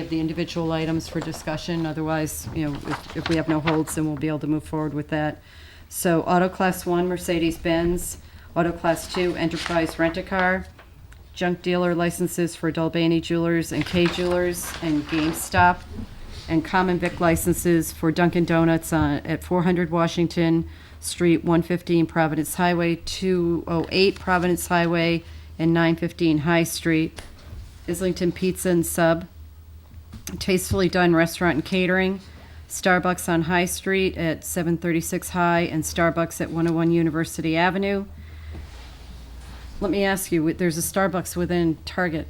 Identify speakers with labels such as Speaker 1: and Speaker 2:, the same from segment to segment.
Speaker 1: of the individual items for discussion, otherwise, you know, if, if we have no holds, then we'll be able to move forward with that. So Auto Class 1 Mercedes-Benz, Auto Class 2 Enterprise Rent-A-Car, junk dealer licenses for Dolbany Jewelers and K Jewelers and GameStop, and common vic licenses for Dunkin' Donuts on, at 400 Washington Street, 115 Providence Highway, 208 Providence Highway, and 915 High Street, Islington Pizza and Sub, Tastefully Done Restaurant and Catering, Starbucks on High Street at 736 High, and Starbucks at 101 University Avenue. Let me ask you, there's a Starbucks within Target.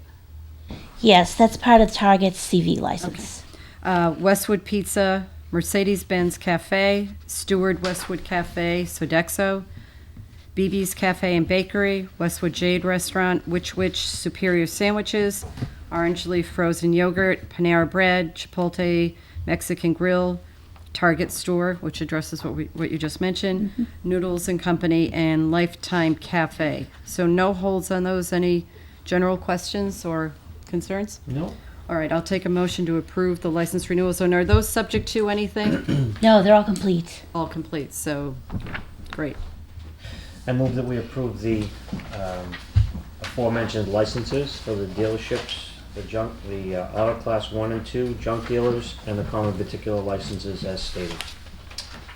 Speaker 2: Yes, that's part of Target's CV license.
Speaker 1: Uh, Westwood Pizza, Mercedes-Benz Cafe, Steward Westwood Cafe, Sodexo, BB's Cafe and Bakery, Westwood Jade Restaurant, Witch Witch Superior Sandwiches, Orange Leaf Frozen Yogurt, Panera Bread, Chipotle Mexican Grill, Target Store, which addresses what we, what you just mentioned, Noodles and Company, and Lifetime Cafe. So no holds on those. Any general questions or concerns?
Speaker 3: No.
Speaker 1: All right, I'll take a motion to approve the license renewals, and are those subject to anything?
Speaker 2: No, they're all complete.
Speaker 1: All complete, so, great.
Speaker 3: I move that we approve the um, aforementioned licenses for the dealerships, the junk, the uh, auto class one and two junk dealers, and the common particular licenses as stated.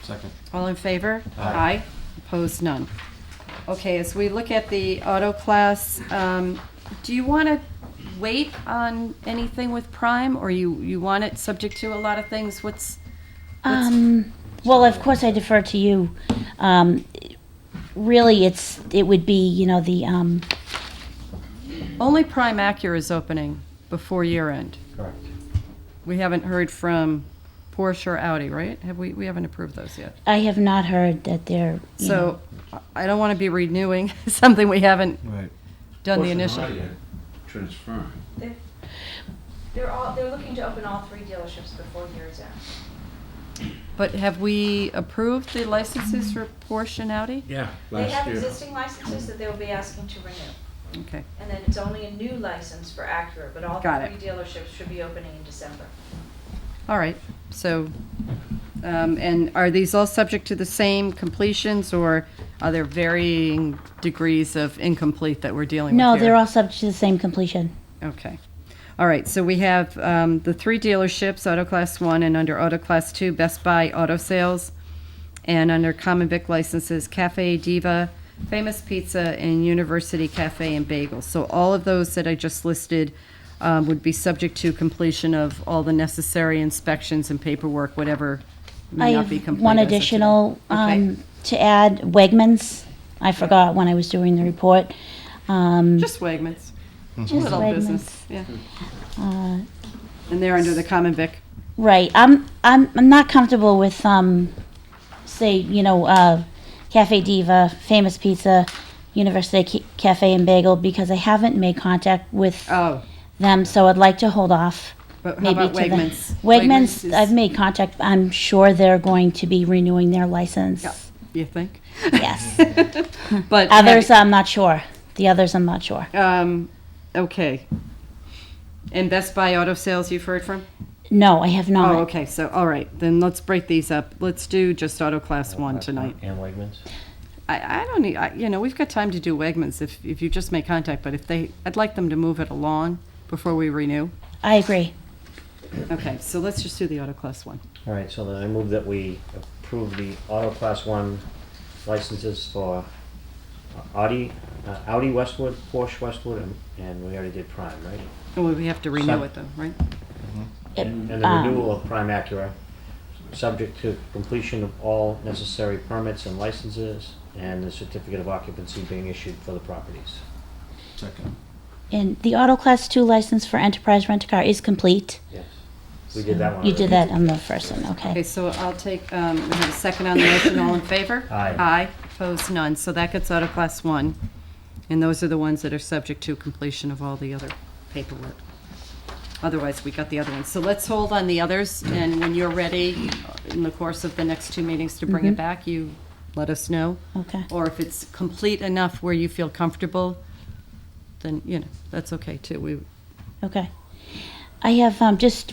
Speaker 4: Second.
Speaker 1: All in favor? Aye. Opposed, none. Okay, as we look at the auto class, um, do you want to wait on anything with Prime, or you, you want it subject to a lot of things? What's,
Speaker 2: Um, well, of course, I defer to you. Um, really, it's it would be you know the um,
Speaker 1: only Prime Acura is opening before year end.
Speaker 3: Correct.
Speaker 1: We haven't heard from Porsche or Audi, right? Have we, we haven't approved those yet?
Speaker 2: I have not heard that they're you know,
Speaker 1: So I don't want to be renewing something we haven't
Speaker 4: Right.
Speaker 1: done the initial.
Speaker 4: Transferring.
Speaker 5: They're all, they're looking to open all three dealerships before year's end.
Speaker 1: But have we approved the licenses for Porsche and Audi?
Speaker 4: Yeah.
Speaker 5: They have existing licenses that they'll be asking to renew,
Speaker 1: Okay,
Speaker 5: and then it's only a new license for Acura, but all
Speaker 1: Got
Speaker 5: three dealerships should be opening in December.
Speaker 1: all right, so, um, and are these all subject to the same completions, or are there varying degrees of incomplete that we're dealing with
Speaker 2: no,
Speaker 1: here?
Speaker 2: they're all subject to the same completion.
Speaker 1: Okay. All right, so we have um, the three dealerships, Auto Class 1 and under Auto Class 2, Best Buy Auto Sales, and under Common Vic licenses, Cafe Diva, Famous Pizza, and University Cafe and Bagel. So all of those that I just listed um, would be subject to completion of all the necessary inspections and paperwork, whatever
Speaker 2: I
Speaker 1: may not
Speaker 2: have
Speaker 1: be complete.
Speaker 2: one
Speaker 1: as of today.
Speaker 2: additional
Speaker 1: Okay.
Speaker 2: um, to add. Wegmans. I forgot when I was doing the report. Um,
Speaker 1: Just Wegmans.
Speaker 2: just Uh,
Speaker 1: Little business, yeah. And they're under the Common Vic.
Speaker 2: Right. I'm I'm I'm not comfortable with um say, you know, uh Cafe Diva, Famous Pizza, University C- Cafe and Bagel because I haven't made contact with
Speaker 1: Oh,
Speaker 2: them, so I'd like to hold off.
Speaker 1: but how about
Speaker 2: to the-
Speaker 1: Wegmans?
Speaker 2: Wegmans,
Speaker 1: is-
Speaker 2: I've made contact. I'm sure they're going to be renewing their license.
Speaker 1: Yeah. You think?
Speaker 2: Yes.
Speaker 1: But
Speaker 2: Uh-huh. others I'm not sure. The others I'm not sure.
Speaker 1: um, okay. And Best Buy Auto Sales, you've heard from?
Speaker 2: No, I have not.
Speaker 1: Oh, okay. So, all right, then let's break these up. Let's do just Auto Class One tonight.
Speaker 3: And Uh, Wegmans.
Speaker 1: I, I don't need, I, you know, we've got time to do Wegmans if if you just make contact. But if they, I'd like them to move it along before we renew.
Speaker 2: I agree.
Speaker 1: Okay, so let's just do the Auto Class One.
Speaker 3: All right, so then I move that we approve the auto class one licenses for Audi, uh, Audi Westwood, Porsche Westwood, and, and we already did Prime, right?
Speaker 1: Well, we have to renew
Speaker 3: Sub-
Speaker 1: it though, right?
Speaker 2: It-
Speaker 3: And the
Speaker 2: um,
Speaker 3: renewal of Prime Acura, subject to completion of all necessary permits and licenses, and the certificate of occupancy being issued for the properties.
Speaker 4: Second.
Speaker 2: and the Auto Class 2 license for Enterprise Rent a Car is complete.
Speaker 3: Yes. We did that one.
Speaker 2: You did that
Speaker 3: already.
Speaker 2: on the first one,
Speaker 1: Okay,
Speaker 2: okay.
Speaker 1: so I'll take, um, we have a second on the motion, all in favor?
Speaker 3: Aye.
Speaker 1: Aye, opposed, none, so that gets out of class one, and those are the ones that are subject to completion of all the other paperwork. Otherwise, we got the other ones, so let's hold on the others, and when you're ready, in the course of the next two meetings to bring it back, you let us know.
Speaker 2: Okay.
Speaker 1: Or if it's complete enough where you feel comfortable, then, you know, that's okay too, we,
Speaker 2: Okay. I have um, just